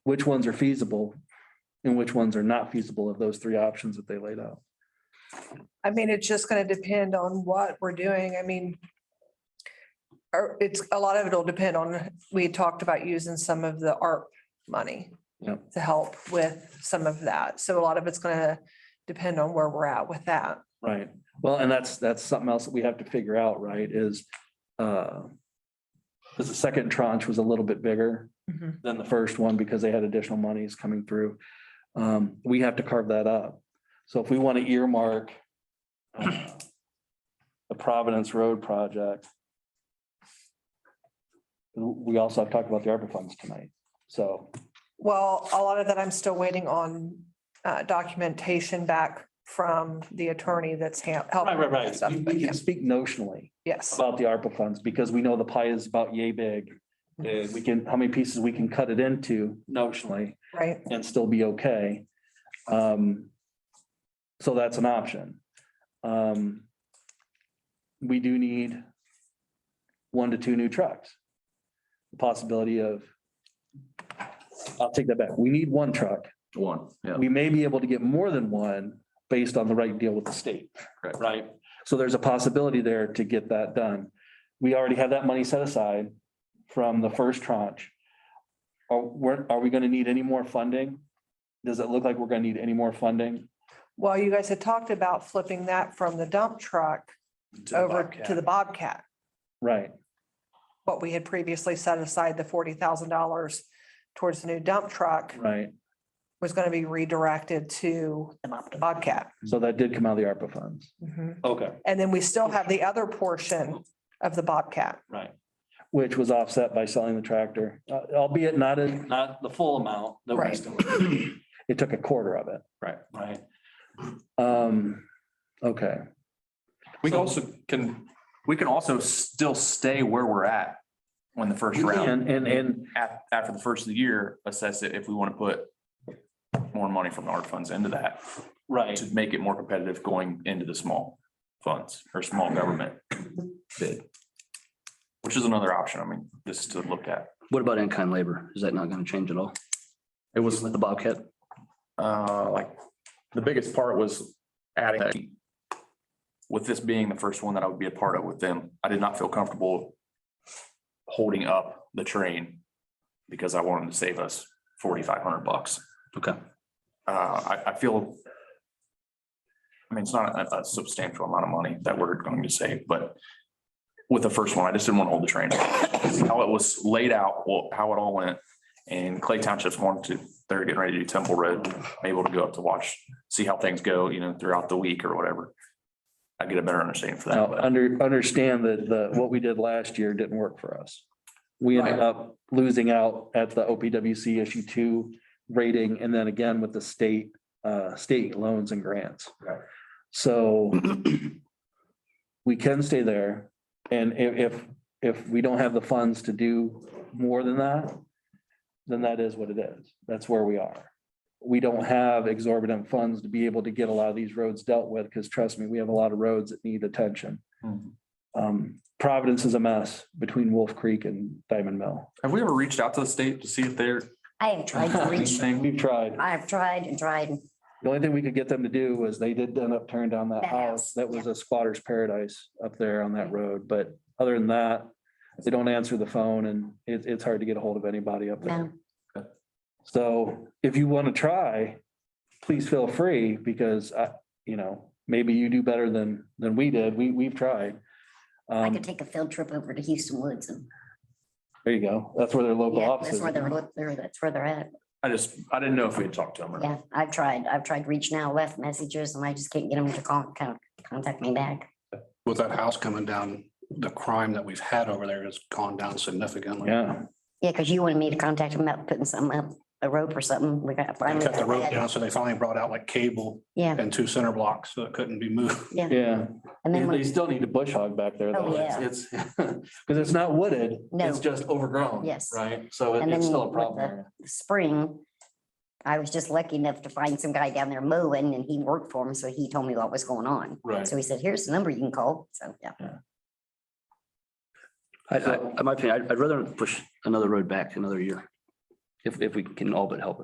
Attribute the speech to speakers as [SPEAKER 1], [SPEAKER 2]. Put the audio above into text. [SPEAKER 1] which ones are feasible and which ones are not feasible of those three options that they laid out.
[SPEAKER 2] I mean, it's just gonna depend on what we're doing. I mean. Or it's, a lot of it'll depend on, we had talked about using some of the ARP money.
[SPEAKER 1] Yep.
[SPEAKER 2] To help with some of that. So a lot of it's gonna depend on where we're at with that.
[SPEAKER 1] Right. Well, and that's, that's something else that we have to figure out, right, is, uh, because the second tranche was a little bit bigger than the first one because they had additional monies coming through. Um, we have to carve that up. So if we want to earmark uh, the Providence Road project, we also have talked about the ARPA funds tonight. So
[SPEAKER 2] Well, a lot of that I'm still waiting on uh, documentation back from the attorney that's ha- helping.
[SPEAKER 1] Right, right,
[SPEAKER 2] with that
[SPEAKER 1] right.
[SPEAKER 2] stuff,
[SPEAKER 1] We-
[SPEAKER 2] but
[SPEAKER 1] We
[SPEAKER 2] yeah,
[SPEAKER 1] can speak notionally
[SPEAKER 2] Yes,
[SPEAKER 1] about the ARPA funds because we know the pie is about yay big.
[SPEAKER 2] Mm-hmm.
[SPEAKER 1] And we can, how many pieces we can cut it into notionally
[SPEAKER 2] right.
[SPEAKER 1] and still be okay. Um, so that's an option. Um, we do need one to two new trucks. The Possibility of, I'll take that back. We need one truck.
[SPEAKER 3] One, yeah.
[SPEAKER 1] We may be able to get more than one based on the right deal with the state.
[SPEAKER 3] Correct.
[SPEAKER 1] Right? So there's a possibility there to get that done. We already have that money set aside from the first tranche. Are, we're, are we gonna need any more funding? Does it look like we're gonna need any more funding?
[SPEAKER 2] Well, you guys had talked about flipping that from the dump truck over to the Bobcat.
[SPEAKER 1] Right,
[SPEAKER 2] What we had previously set aside, the forty thousand dollars towards the new dump truck
[SPEAKER 1] right.
[SPEAKER 2] was going to be redirected to the Bobcat.
[SPEAKER 1] So that did come out of the ARPA funds.
[SPEAKER 2] Mhm.
[SPEAKER 1] Okay.
[SPEAKER 2] And then we still have the other portion of the Bobcat.
[SPEAKER 1] Right. Which was offset by selling the tractor, uh, albeit not in. Not the full amount.
[SPEAKER 2] we Right.
[SPEAKER 1] It took a quarter of it.
[SPEAKER 3] Right.
[SPEAKER 1] Right. Um, okay.
[SPEAKER 3] We also can, we can also still stay where we're at when the first round,
[SPEAKER 1] And, and, and
[SPEAKER 3] af- after the first of the year, assess it if we want to put more money from our funds into that
[SPEAKER 1] Right,
[SPEAKER 3] to make it more competitive going into the small funds or small government bid. Which is another option. I mean, this is to look at.
[SPEAKER 4] What about in-kind labor? Is that not gonna change at all?
[SPEAKER 3] It was
[SPEAKER 4] With the Bobcat?
[SPEAKER 3] uh, like, the biggest part was adding that. With this being the first one that I would be a part of with them, I did not feel comfortable holding up the train because I wanted to save us forty-five hundred bucks.
[SPEAKER 4] Okay.
[SPEAKER 3] Uh, I, I feel I mean, it's not a- a substantial amount of money that we're going to save, but with the first one, I just didn't want to hold the train. How it was laid out, well, how it all went, and Clay Township's going to, they're getting ready to do Temple Road, I'm able to go up to watch, see how things go, you know, throughout the week or whatever. I get a better understanding for that,
[SPEAKER 1] now,
[SPEAKER 3] but
[SPEAKER 1] under, understand that the, what we did last year didn't work for us. We ended
[SPEAKER 3] Right.
[SPEAKER 1] up losing out at the OPWC issue two rating and then again with the state, uh, state loans and grants.
[SPEAKER 3] Right.
[SPEAKER 1] So we can stay there and i- if, if we don't have the funds to do more than that, then that is what it is. That's where we are. we don't have exorbitant funds to be able to get a lot of these roads dealt with, because trust me, we have a lot of roads that need attention.
[SPEAKER 3] Mhm.
[SPEAKER 1] Um, Providence is a mess between Wolf Creek and Diamond Mill.
[SPEAKER 3] have we ever reached out to the state to see if they're?
[SPEAKER 5] I have tried to reach,
[SPEAKER 1] We've tried.
[SPEAKER 5] I've tried and tried.
[SPEAKER 1] The only thing we could get them to do was they did end up tearing down that
[SPEAKER 5] That
[SPEAKER 1] house.
[SPEAKER 5] house,
[SPEAKER 1] That was a squatter's paradise up there on that road, but other than that, they don't answer the phone and it, it's hard to get a hold of anybody up there.
[SPEAKER 5] No.
[SPEAKER 1] So if you want to try, please feel free because I, you know, maybe you do better than, than we did. We, we've tried.
[SPEAKER 5] I
[SPEAKER 1] Um,
[SPEAKER 5] could take a field trip over to Houston Woods and
[SPEAKER 1] there you go. That's where their local
[SPEAKER 5] yeah,
[SPEAKER 1] offices.
[SPEAKER 5] that's where they're, look- they're- that's where they're at.
[SPEAKER 3] I just, I didn't know if we had talked to them or not.
[SPEAKER 5] Yeah, I've tried. I've tried reaching out, left messages and I just can't get them to con- con- contact me back.
[SPEAKER 6] with that house coming down, the crime that we've had over there has gone down significantly.
[SPEAKER 1] Yeah,
[SPEAKER 5] Yeah, because you wanted me to contact them about putting something up, a rope or something. We got.
[SPEAKER 6] They
[SPEAKER 5] finally
[SPEAKER 6] cut the
[SPEAKER 5] got
[SPEAKER 6] road
[SPEAKER 5] that.
[SPEAKER 6] down, so they finally brought out like cable
[SPEAKER 5] Yeah,
[SPEAKER 6] and two center blocks, so it couldn't be moved.
[SPEAKER 1] yeah.
[SPEAKER 5] and then
[SPEAKER 1] And They
[SPEAKER 5] when,
[SPEAKER 1] still need to bush hog back there
[SPEAKER 5] Oh,
[SPEAKER 1] though.
[SPEAKER 5] yeah.
[SPEAKER 1] It's, because it's not wooded. It's just overgrown.
[SPEAKER 5] Yes.
[SPEAKER 1] Right? So it-
[SPEAKER 5] And
[SPEAKER 1] it's
[SPEAKER 5] then
[SPEAKER 1] still a
[SPEAKER 5] with
[SPEAKER 1] problem.
[SPEAKER 5] the-
[SPEAKER 1] area.
[SPEAKER 5] spring, I was just lucky enough to find some guy down there mowing and he worked for him, so he told me what was going on.
[SPEAKER 3] Right.
[SPEAKER 5] So he said, here's the number you can call. So, yeah.
[SPEAKER 4] I, I, in my opinion, I'd, I'd rather push another road back another year.
[SPEAKER 1] if, if we can all but help it.